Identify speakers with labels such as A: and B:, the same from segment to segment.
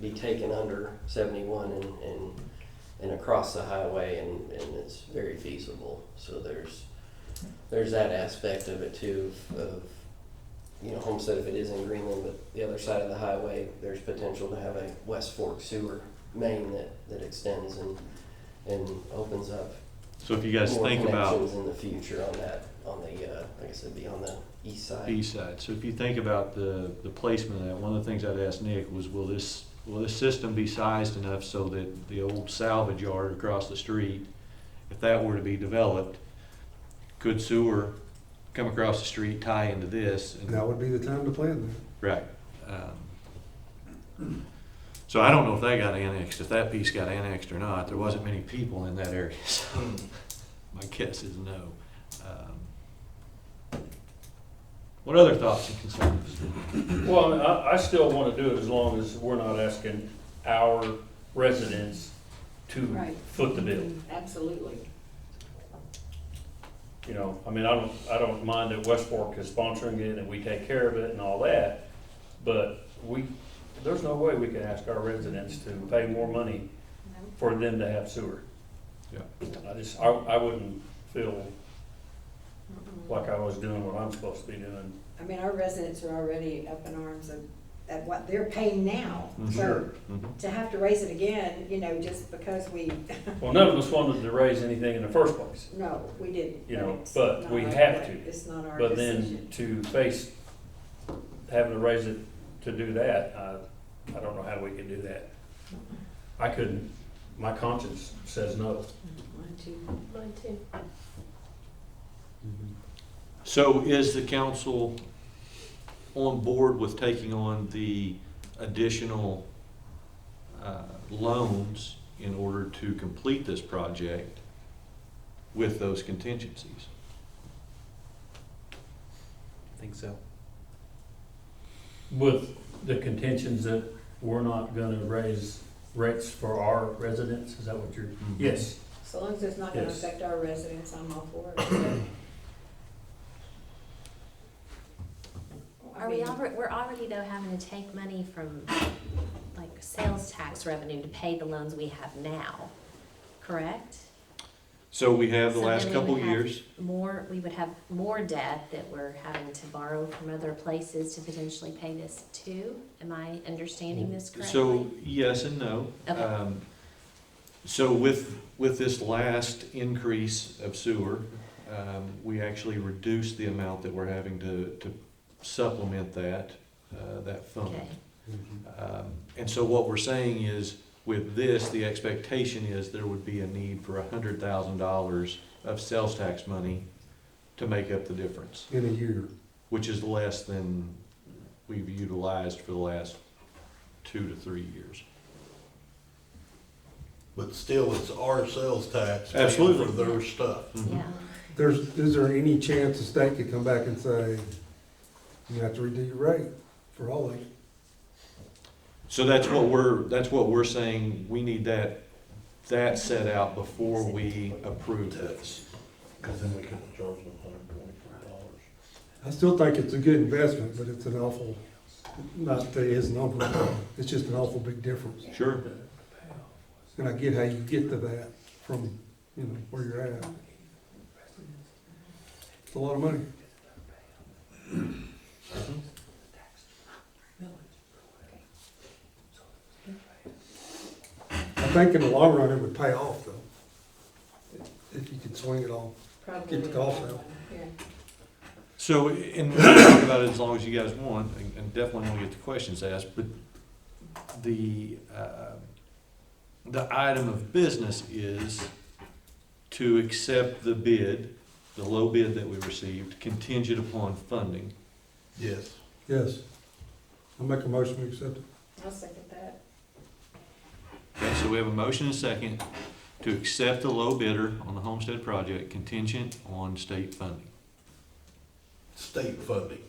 A: be taken under seventy-one and, and, and across the highway and, and it's very feasible. So there's, there's that aspect of it too, of- of, you know, Homestead, if it is in Greenland, but the other side of the highway, there's potential to have a West Fork sewer main that, that extends and, and opens up
B: So if you guys
A: more
B: think about
A: connections in the future on that, on the, uh, like I said, be on the east side.
B: B side, so if you think about the, the placement of that, one of the things I'd asked Nick was, will this, will this system be sized enough so that the old salvage yard across the street, if that were to be developed, could sewer come across the street, tie into this? and-
C: That would be the time to plan that.
B: Right. Um, So I don't know if that got annexed, if that piece got annexed or not. There wasn't many people in that area, so my guess is no. Um, What other thoughts and concerns?
D: Well, I mean, I, I still want to do it as long as we're not asking our residents to
E: Right.
D: foot the bill.
E: Absolutely.
D: You know, I mean, I don't, I don't mind that West Fork is sponsoring it and we take care of it and all that, but we, there's no way we can ask our residents to pay more money for them to have sewer.
B: Yeah.
D: I just, I, I wouldn't feel like I was doing what I'm supposed to be doing.
E: I mean, our residents are already up in arms of, at what they're paying now.
D: Mm-hmm.
B: Mhm.
E: So
B: Mhm.
E: to have to raise it again, you know, just because we,
D: Well, none of us wanted to raise anything in the first place.
E: no, we didn't.
D: You know,
E: it's
D: but
E: not
D: we
E: our-
D: have to.
E: It's not our
D: But then
E: decision.
D: to face having to raise it to do that, I, I don't know how we can do that. I couldn't, my conscience says no.
E: One, two.
F: Mine too.
B: So is the council on board with taking on the additional uh, loans in order to complete this project with those contingencies?
G: Think so.
D: With the contentions that we're not gonna raise rates for our residents, is that what you're? Yes.
E: So long as it's not gonna
D: Yes.
E: affect our residents, I'm all for it. I
F: Are we
E: mean,
F: already, we're already though having to take money from like sales tax revenue to pay the loans we have now, correct?
B: So we have the
F: So
B: last
F: then we
B: couple
F: would have-
B: years.
F: More, we would have more debt that we're having to borrow from other places to potentially pay this too. Am I understanding this correctly?
B: So, yes and no.
F: Okay.
B: Um, So with, with this last increase of sewer, um, we actually reduced the amount that we're having to, to supplement that, uh, that fund.
F: Okay,
B: Um, And so what we're saying is, with this, the expectation is there would be a need for a hundred thousand dollars of sales tax money to make up the difference,
C: In a year,
B: which is less than we've utilized for the last two to three years.
H: But still, it's our sales tax. paying
B: Absolutely.
H: For their stuff.
F: yeah.
C: there's, is there any chance the state could come back and say, you have to redo your rate for all of it?
B: So that's what we're, that's what we're saying, we need that, that set out before we approve this.
H: Cause then we could charge them hundred and twenty-four dollars.
C: I still think it's a good investment, but it's an awful, not that it isn't awful, it's just an awful big difference.
B: Sure.
C: And I get how you get to that from, you know, where you're at. It's a lot of money. I think in the long run, it would pay off though. If you could swing it all.
E: Probably.
C: Get the golf out.
E: Yeah.
B: So, and we can talk about it as long as you guys want, and and definitely want to get the questions asked, but the, uh, the item of business is to accept the bid, the low bid that we received, contingent upon funding.
H: Yes.
C: Yes. I'll make a motion to accept it.
E: I'll second that.
B: Okay, so we have a motion and a second to accept the low bidder on the homestead project contingent on state funding.
H: State funding,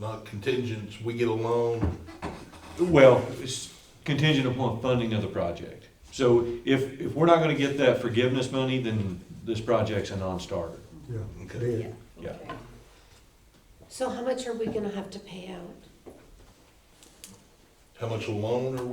H: not contingents. We get a loan.
B: Well, it's contingent upon funding of the project. So if, if we're not gonna get that forgiveness money, then this project's a non-starter.
C: Yeah.
H: Okay.
C: Dead.
B: Yeah.
E: Okay.
F: So how much are we gonna have to pay out?
H: How much loan are we